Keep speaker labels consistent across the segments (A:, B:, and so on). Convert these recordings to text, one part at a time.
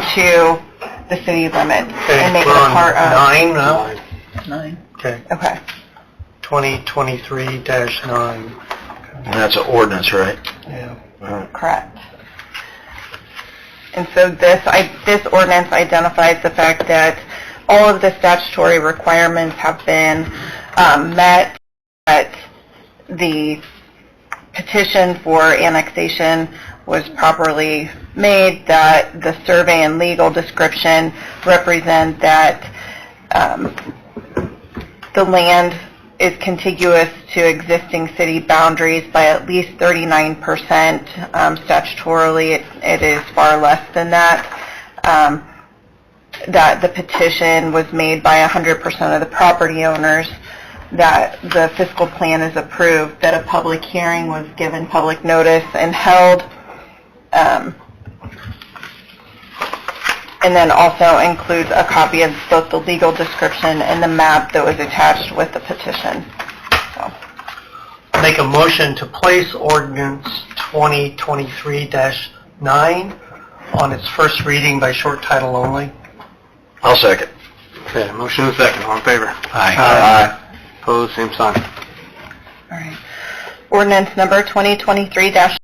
A: into the city limits and make it
B: we're
A: a
B: on
A: part of,
B: Nine uh, now?
C: Nine.
B: Okay,
A: okay.
B: 2023-9,
D: And that's an ordinance, right?
B: yeah.
A: Correct. And so this, I, this ordinance identifies the fact that all of the statutory requirements have been, um, met, that the petition for annexation was properly made, that the survey and legal description represent that, um, the land is contiguous to existing city boundaries by at least 39%. Um, Statutorily, it- it is far less than that. Um, That the petition was made by 100% of the property owners, that the fiscal plan is approved, that a public hearing was given public notice and held, um, and then also includes a copy of both the legal description and the map that was attached with the petition. So,
B: Make a motion to place ordinance 2023-9 on its first reading by short title only.
D: I'll second.
E: Okay, motion and second, all in favor?
D: Aye.
E: Opposed, same sign.
A: all right. Ordinance number 2023-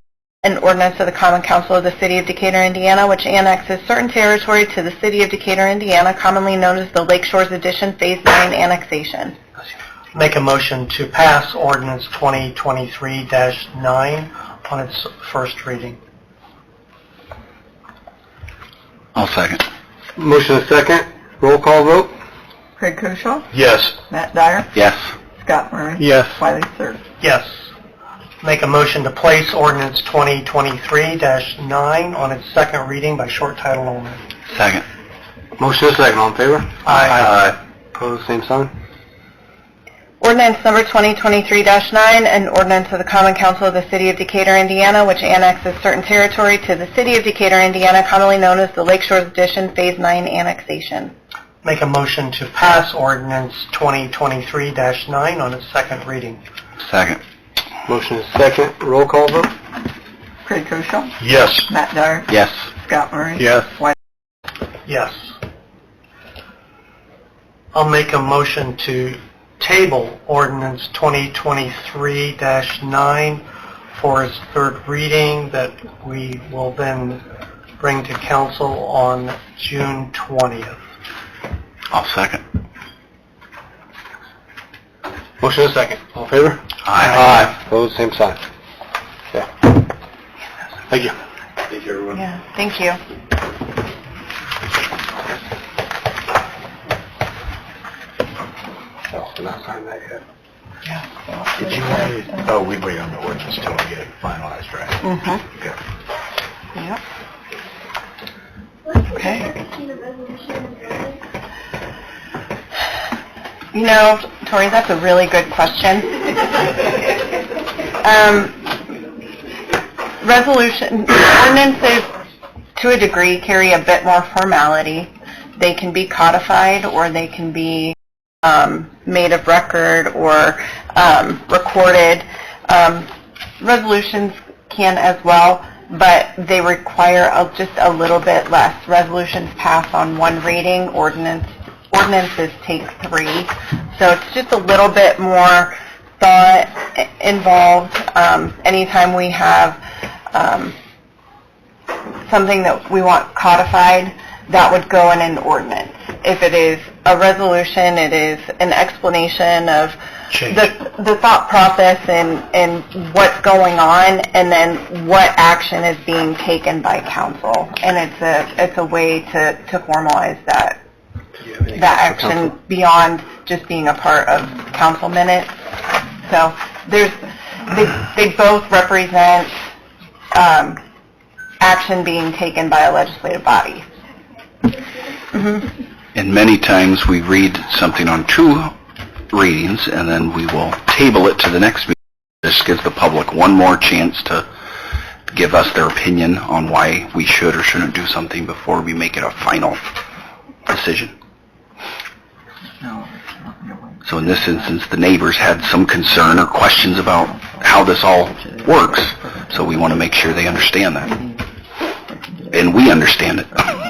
A: an ordinance of the Common Council of the City of Decatur, Indiana, which annexes certain territory to the City of Decatur, Indiana, commonly known as the Lake Shores Edition Phase 9 Annexation.
B: Make a motion to pass ordinance 2023-9 on its first reading.
D: I'll second.
E: Motion and second, roll call vote?
C: Craig Koshaw,
D: Yes.
C: Matt Dyer,
D: Yes.
C: Scott Murray,
E: Yes.
C: Wiley Sir.
B: Yes. Make a motion to place ordinance 2023-9 on its second reading by short title only.
D: Second.
E: Motion and second, all in favor?
D: Aye.
E: Opposed, same sign.
A: Ordinance number 2023-9, an ordinance of the Common Council of the City of Decatur, Indiana, which annexes certain territory to the City of Decatur, Indiana, commonly known as the Lake Shores Edition Phase 9 Annexation.
B: Make a motion to pass ordinance 2023-9 on its second reading.
D: Second.
E: Motion and second, roll call vote?
C: Craig Koshaw,
D: Yes.
C: Matt Dyer,
D: Yes.
C: Scott Murray.
E: Yes.
B: Yes. I'll make a motion to table ordinance 2023-9 for its third reading that we will then bring to council on June 20th.
D: I'll second.
E: Motion and second, all in favor?
D: Aye.
E: Opposed, same sign. Okay. Thank you.
D: Thank you, everyone.
A: Yeah, thank you.
E: Oh, not signed that yet.
D: Did you want to, oh, we wait on the ordinance till we get it finalized, right?
A: Mm-hmm.
D: Okay.
A: Yep. You know, Tori, that's a really good question. Um, Resolution, ordinances, to a degree, carry a bit more formality. They can be codified, or they can be um, made of record or um, recorded. Um, Resolutions can as well, but they require a- just a little bit less. Resolutions pass on one reading, ordinance, ordinances take three. So it's just a little bit more thought i- involved. Um, Anytime we have um, something that we want codified, that would go in an ordinance. If it is a resolution, it is an explanation of
D: Change.
A: the, the thought process and, and what's going on, and then what action is being taken by council. And it's a, it's a way to, to formalize that, that action beyond just being a part of council minutes. So there's, they, they both represent, um, action being taken by a legislative body.
F: And many times we read something on two readings and then we will table it to the next meeting. This gives the public one more chance to give us their opinion on why we should or shouldn't do something before we make it a final decision.
C: No, it's not your way.
F: So in this instance, the neighbors had some concern or questions about how this all works. So we want to make sure they understand that. And we understand it.